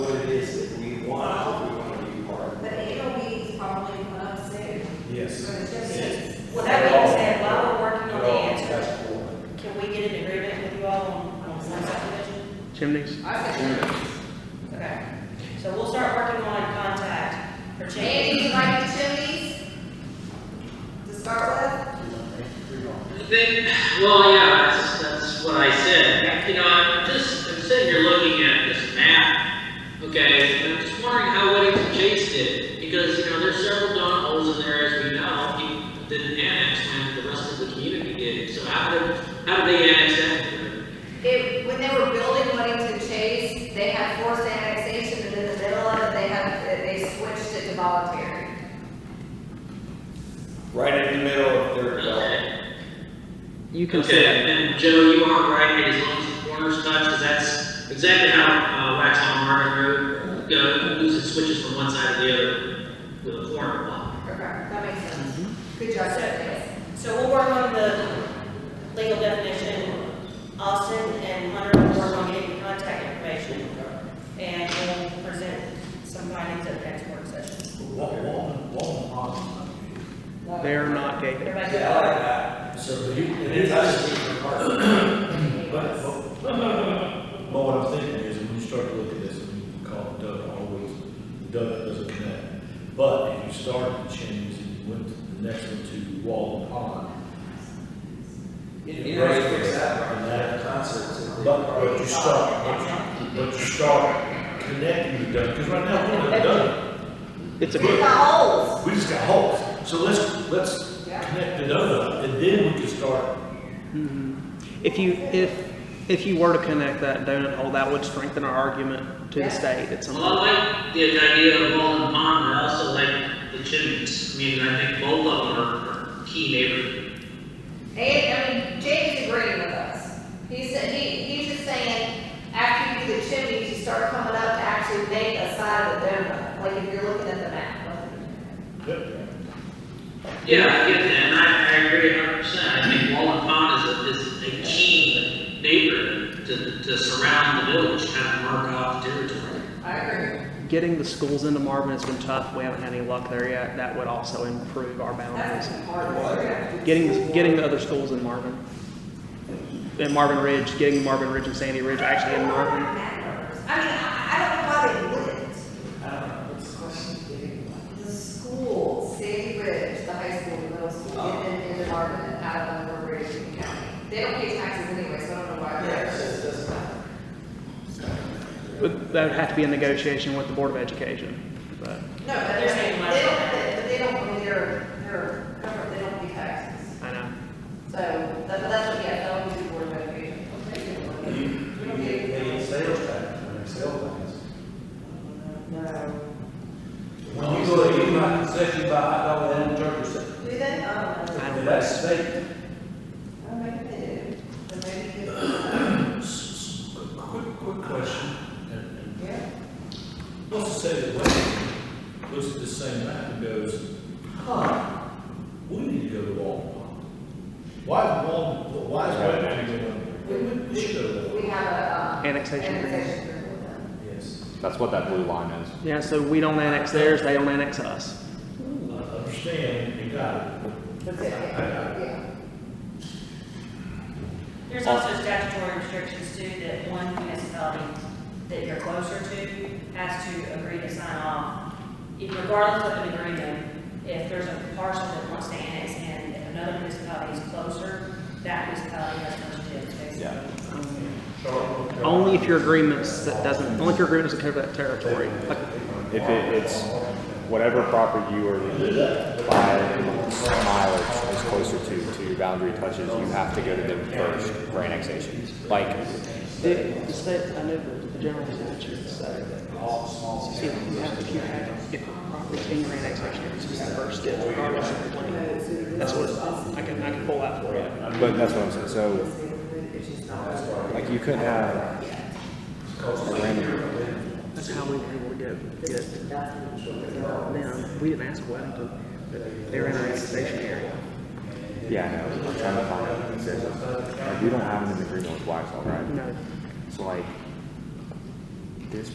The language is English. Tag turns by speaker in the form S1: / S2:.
S1: Then, well, yeah, that's, that's what I said. You know, I'm just, I'm sitting here looking at this map, okay, and I'm just wondering how Weddington Chase did. Because, you know, there's several donut holes in there, as we know, people didn't annex when the rest of the community did. So how did, how did they annex that?
S2: They, when they were building Weddington Chase, they had forced annexation, and in the middle of it, they had, they switched it to voluntary.
S3: right in the middle of their development.
S1: Okay,
S4: You can
S1: Okay,
S4: say,
S1: and Joe, you are right, as long as the corners touch, because that's exactly how, uh, Waxaw Marvin Road, goes, it switches from one side to the other with a corner block.
S2: Okay, that makes sense. Good job, guys.
S5: So we'll work on the legal definition. Austin and Hunter will work on getting contact information, and we'll present some findings at the next work session.
S6: Walton, Walton, Walton Pond.
S4: they're not gated.
S5: Everybody
S6: Yeah, I
S5: good?
S6: like that. So you, it is actually a part of it. But, but, but what I'm thinking is, when you start to look at this, and you call it Doug always, Doug doesn't connect. But if you started the chains and you went to the next one to Walton Pond.
S7: You know, you fix that
S6: And that-
S7: concerts.
S6: But, but you start, but, but you start connecting the Doug, because right now, we don't have Doug,
S4: It's
S5: We've
S4: a,
S5: got holes.
S6: we just got holes. So let's, let's
S2: Yeah.
S6: connect the Doug, and then we can start
S4: Mhm. if you, if, if you were to connect that donut hole, that would strengthen our argument to the
S2: Yeah.
S4: state at some
S1: Well,
S4: point.
S1: I like the idea of Walden Pond, but I also like the chimneys. I mean, I think both of them are are key neighborhood.
S2: And, I mean, Jake's agreeing with us. He said, he, he's just saying, after you do the chimneys, you start coming up to actually make a side of the donut, like if you're looking at the map.
S1: Yeah, I get that, and I, I agree a hundred percent. I think Walden Pond is a, is a key neighborhood to, to surround the village, kind of mark off territory.
S2: I agree.
S4: Getting the schools into Marvin has been tough. We haven't had any luck there yet. That would also improve our boundaries.
S2: That's important. We're gonna have to do
S4: Getting, getting the other schools in Marvin. In Marvin Ridge, getting Marvin Ridge and Sandy Ridge actually in Marvin.
S2: I mean, I, I don't know why they wouldn't. The schools, Sandy Ridge, the high school, the middle school, get them in Marvin and out of Ridge in the county. They don't pay taxes anyway, so I don't know why they're.
S4: But That would have to be a negotiation with the Board of Education, but.
S2: No, but they're saying, they don't, but they don't, I mean, they're, they're, covered, they don't pay taxes.
S4: I know.
S2: So, that, but that's what, yeah, that would be board of education. We don't
S7: They
S2: get-
S7: get sales tax, on their sales tax.
S2: No.
S7: When you go to, you might, say you buy hot dog and turkey, say,
S2: Do they? I don't know.
S4: I don't know.
S7: that's state.
S2: Oh, maybe they do. But maybe they,
S6: S- s- Quick, quick question. and- and
S2: yeah.
S6: Let's say that Wayne looks at the same map and goes, huh, we need to go to Walmart. Why is Walmart, why is Wayne going, we should go to Walmart?
S2: We have a, um.
S4: Annexation agreement.
S2: annexation agreement with them.
S6: Yes,
S8: That's what that blue line is.
S4: Yeah, so we don't annex theirs, they don't annex us.
S6: I understand, you got it.
S2: That's it, yeah, yeah.
S5: There's also statutory restrictions too, that one municipality that you're closer to has to agree to sign off. If Regardless of an agreement, if there's a parcel that wants to annex in, if another municipality is closer, that municipality has to do it, basically.
S8: Yeah.
S4: Only if your agreements that doesn't, only if your agreements that cover that territory. Like,
S8: If it, it's whatever property you are by mileage is closer to, to your boundary touches, you have to go to them first for annexation. Like,
S4: the, the state, I know the, the general statute says that. If you have, if you have, if property's in your annexation, it's just the first step, regardless of the plan. That's what, I can, I can pull that for you.
S8: but that's what I'm saying, so, like, you couldn't have a random,
S4: That's how we were able to get, get them. We didn't ask Weddington, but they're in our annexation area.
S8: yeah, I know, I'm trying to find it. Like, we don't have an agreement with Waxaw, right?
S4: No,
S8: So like,